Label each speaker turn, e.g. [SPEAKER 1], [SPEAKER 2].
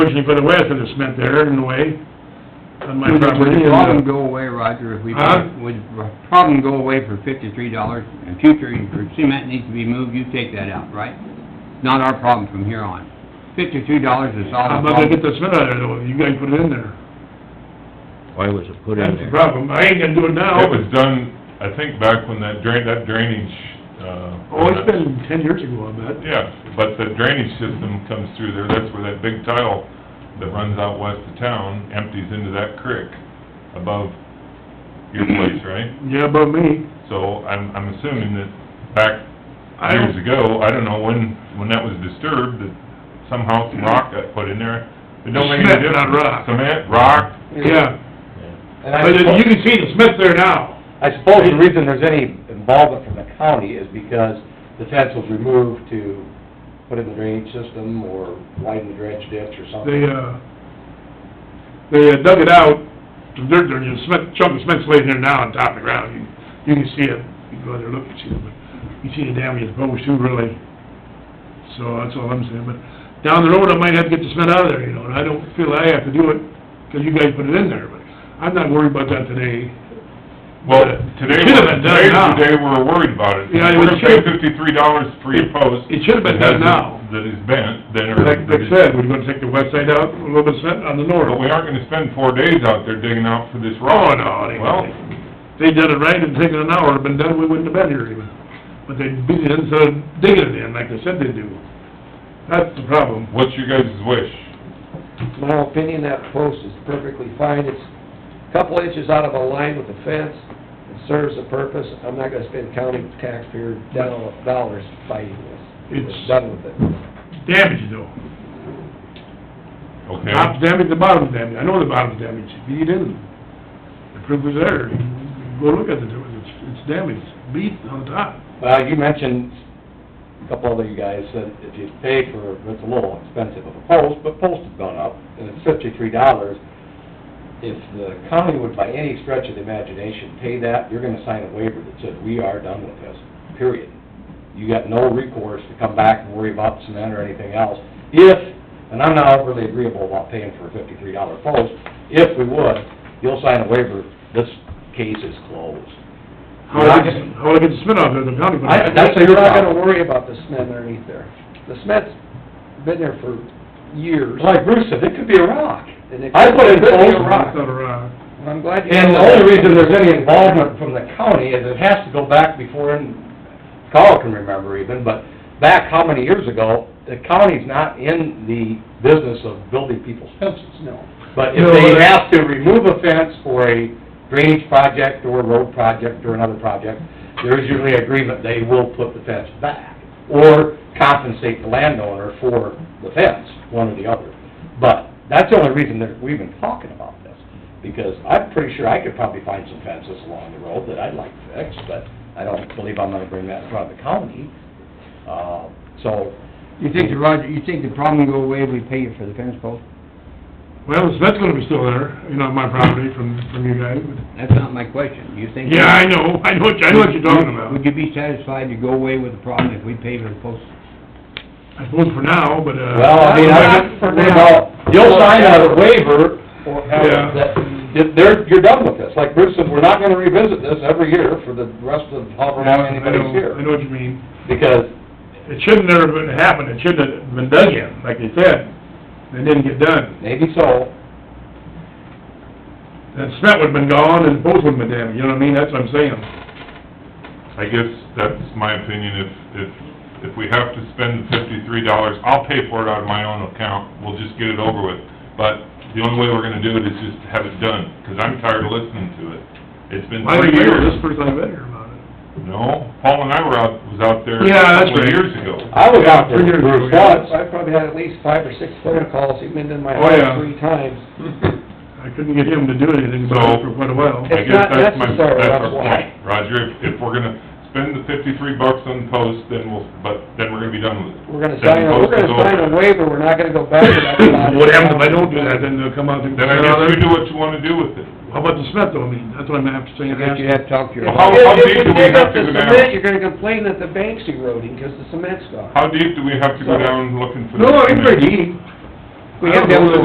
[SPEAKER 1] originally put it with, and it's meant there in a way, on my
[SPEAKER 2] Would
[SPEAKER 1] property.
[SPEAKER 2] the problem go away, Roger, if we,
[SPEAKER 1] Huh?
[SPEAKER 2] would the problem go away for fifty-three dollars in future, if cement needs to be moved, you take that out, right? Not our problem from here on. Fifty-three dollars is all
[SPEAKER 1] I'm
[SPEAKER 2] the
[SPEAKER 1] not gonna get
[SPEAKER 2] problem.
[SPEAKER 1] the cement out of there, though, you guys put it in there.
[SPEAKER 3] Why was it put in
[SPEAKER 1] That's
[SPEAKER 3] there?
[SPEAKER 1] the problem, I ain't gonna do it now.
[SPEAKER 4] It was done, I think, back when that drain, that drainage, uh...
[SPEAKER 1] Oh, it's been ten years ago, I bet.
[SPEAKER 4] Yeah, but the drainage system comes through there, that's where that big tile that runs out west of town empties into that creek above your place, right?
[SPEAKER 1] Yeah, about me.
[SPEAKER 4] So I'm, I'm assuming that back years ago, I don't know when, when that was disturbed, that somehow some rock got put in there. It don't make any
[SPEAKER 1] Cement,
[SPEAKER 4] difference.
[SPEAKER 1] not rock.
[SPEAKER 4] Cement, rock,
[SPEAKER 1] Yeah,
[SPEAKER 5] And I
[SPEAKER 1] but it- you
[SPEAKER 5] suppose,
[SPEAKER 1] can see the cement there now.
[SPEAKER 5] I suppose the reason there's any involvement from the county is because the fence was removed to put in the drainage system or widen the dredge ditch or
[SPEAKER 1] They,
[SPEAKER 5] something.
[SPEAKER 1] uh, they uh, dug it out, the dirt there, you cement, chunk of cement's laying there now on top of the ground. You, you can see it, you go out there, look, you see it, but you see the damage it's posed too, really. So that's all I'm saying, but down the road, I might have to get the cement out of there, you know, and I don't feel I have to do it, 'cause you guys put it in there, but I'm not worried about that today.
[SPEAKER 4] Well,
[SPEAKER 1] But
[SPEAKER 4] today,
[SPEAKER 1] it should've been done
[SPEAKER 4] today's
[SPEAKER 1] now.
[SPEAKER 4] the day we're worried about it.
[SPEAKER 1] Yeah, it
[SPEAKER 4] We're gonna pay
[SPEAKER 1] should've-
[SPEAKER 4] fifty-three dollars for your post.
[SPEAKER 1] It should've been done now.
[SPEAKER 4] That is bent, then. or-
[SPEAKER 1] Like, like I said, we're gonna take the west side out, a little bit of cement on the north.
[SPEAKER 4] But we aren't gonna spend four days out there digging out for this
[SPEAKER 1] Oh,
[SPEAKER 4] rock.
[SPEAKER 1] no, they,
[SPEAKER 4] Well,
[SPEAKER 1] they did it right, it'd taken an hour, been done, we wouldn't have been here even. But they beat it in, so digging it in, like they said they do. That's the problem.
[SPEAKER 4] what's your guys' wish?
[SPEAKER 6] my opinion, that post is perfectly fine. It's a couple inches out of a line with the fence. It serves a purpose. I'm not gonna spend county taxpayer doll- dollars fighting this.
[SPEAKER 1] It's-
[SPEAKER 6] It's done with it.
[SPEAKER 1] Damage though.
[SPEAKER 4] Okay?
[SPEAKER 1] Top's damaged, the bottom's damaged. I know the bottom's damaged. Beat it in. The proof is there. Go look at it, it's, it's damaged. Beat on top.
[SPEAKER 5] Well, you mentioned, a couple other you guys said if you pay for, it's a little expensive of a post, but post has gone up, and it's fifty-three dollars. If the county would by any stretch of the imagination pay that, you're gonna sign a waiver that says, we are done with this, period. You got no recourse to come back and worry about cement or anything else. If, and I'm not really agreeable about paying for a fifty-three dollar post, if we would, you'll sign a waiver, this case is closed.
[SPEAKER 1] How I get, how I get the spit off there, the county put
[SPEAKER 5] I-
[SPEAKER 1] it.
[SPEAKER 5] that's your
[SPEAKER 6] We're not gonna
[SPEAKER 5] problem.
[SPEAKER 6] worry about the cement underneath there. The cement's been there for years.
[SPEAKER 5] Like Bruce said, it could be a rock.
[SPEAKER 6] and it
[SPEAKER 5] I put in
[SPEAKER 6] could be a
[SPEAKER 5] post-
[SPEAKER 1] It's
[SPEAKER 6] rock.
[SPEAKER 1] not a rock.
[SPEAKER 6] I'm glad you...
[SPEAKER 5] And the only reason there's any involvement from the county is it has to go back before, and Carl can remember even, but back how many years ago, the county's not in the business of building people's fences.
[SPEAKER 6] No.
[SPEAKER 5] But if they have to remove a fence for a drainage project or a road project or another project, there is usually agreement they will put the fence back or compensate the landowner for the fence, one or the other. But that's the only reason that we've been talking about this, because I'm pretty sure I could probably find some fences along the road that I'd like fixed, but I don't believe I'm gonna bring that in front of the county. Uh, so,
[SPEAKER 2] You think, the Roger, you think the problem go away if we pay you for the fence post?
[SPEAKER 1] Well, the cement's gonna be still there, you know, on my property from, from you guys. but-
[SPEAKER 2] That's not my question. You think...
[SPEAKER 1] Yeah, I know. I know what, I know what you're talking about.
[SPEAKER 2] Would you be satisfied to go away with the problem if we pay for the post?
[SPEAKER 1] I suppose for now, but, uh...
[SPEAKER 5] Well, I mean, I,
[SPEAKER 6] Not for
[SPEAKER 5] what
[SPEAKER 6] now.
[SPEAKER 5] about, you'll sign a waiver, or,
[SPEAKER 1] Yeah.
[SPEAKER 5] that, that they're, you're done with this, like Bruce said, we're not gonna revisit this every year for the rest of however
[SPEAKER 1] Yeah,
[SPEAKER 5] long
[SPEAKER 1] I know,
[SPEAKER 5] anybody's
[SPEAKER 1] I
[SPEAKER 5] here.
[SPEAKER 1] know what you mean.
[SPEAKER 5] Because,
[SPEAKER 1] It shouldn't have ever been happened, it shouldn't have been dug in, like they said. It didn't get done.
[SPEAKER 5] maybe so,
[SPEAKER 1] That cement would've been gone and both would've been damaged, you know what I mean? That's what I'm saying.
[SPEAKER 4] I guess that's my opinion, if, if, if we have to spend the fifty-three dollars, I'll pay for it out of my own account, we'll just get it over with. But the only way we're gonna do it is just have it done, 'cause I'm tired of listening to it. It's been
[SPEAKER 1] I
[SPEAKER 4] three
[SPEAKER 1] think
[SPEAKER 4] years.
[SPEAKER 1] this person I've been here about it.
[SPEAKER 4] No, Paul and I were out, was out there a
[SPEAKER 1] Yeah, that's
[SPEAKER 4] couple of
[SPEAKER 1] right.
[SPEAKER 4] years ago.
[SPEAKER 5] I was out there,
[SPEAKER 1] Oh, Yeah,
[SPEAKER 5] with
[SPEAKER 1] we're
[SPEAKER 5] Bruce,
[SPEAKER 1] gonna-
[SPEAKER 5] once.
[SPEAKER 6] I probably had at least five or six phone calls, even in my
[SPEAKER 1] Oh, yeah.
[SPEAKER 6] house three times.
[SPEAKER 1] I couldn't get him to do anything about it for quite a while.
[SPEAKER 4] I
[SPEAKER 6] It's
[SPEAKER 4] guess
[SPEAKER 6] not
[SPEAKER 4] that's my,
[SPEAKER 6] necessary,
[SPEAKER 4] that's
[SPEAKER 6] that's
[SPEAKER 4] our
[SPEAKER 6] why.
[SPEAKER 4] point, Roger, if, if we're gonna spend the fifty-three bucks on post, then we'll, but then we're gonna be done with it.
[SPEAKER 6] We're gonna
[SPEAKER 4] Then
[SPEAKER 6] sign, a-
[SPEAKER 4] post
[SPEAKER 6] we're gonna
[SPEAKER 4] is
[SPEAKER 6] sign
[SPEAKER 4] over.
[SPEAKER 6] a waiver, we're not gonna go back to that. spot.
[SPEAKER 1] What happens if I don't do that, then they'll come out and...
[SPEAKER 4] Then I guess you do what you wanna do with it.
[SPEAKER 1] How about the cement though, I mean, that's what I'm gonna have to say.
[SPEAKER 2] I guess you have to talk to your...
[SPEAKER 4] Well, how, how
[SPEAKER 6] If-
[SPEAKER 4] deep do
[SPEAKER 6] If
[SPEAKER 4] we
[SPEAKER 6] you dig
[SPEAKER 4] have
[SPEAKER 6] up
[SPEAKER 4] to
[SPEAKER 6] the
[SPEAKER 4] go
[SPEAKER 6] cement,
[SPEAKER 4] down?
[SPEAKER 6] you're gonna complain that the bank's eroding, 'cause the cement's gone.
[SPEAKER 4] How deep do we have to go down looking for?
[SPEAKER 1] No,
[SPEAKER 4] the
[SPEAKER 1] it's
[SPEAKER 4] cement?
[SPEAKER 1] pretty easy.
[SPEAKER 2] We have to have a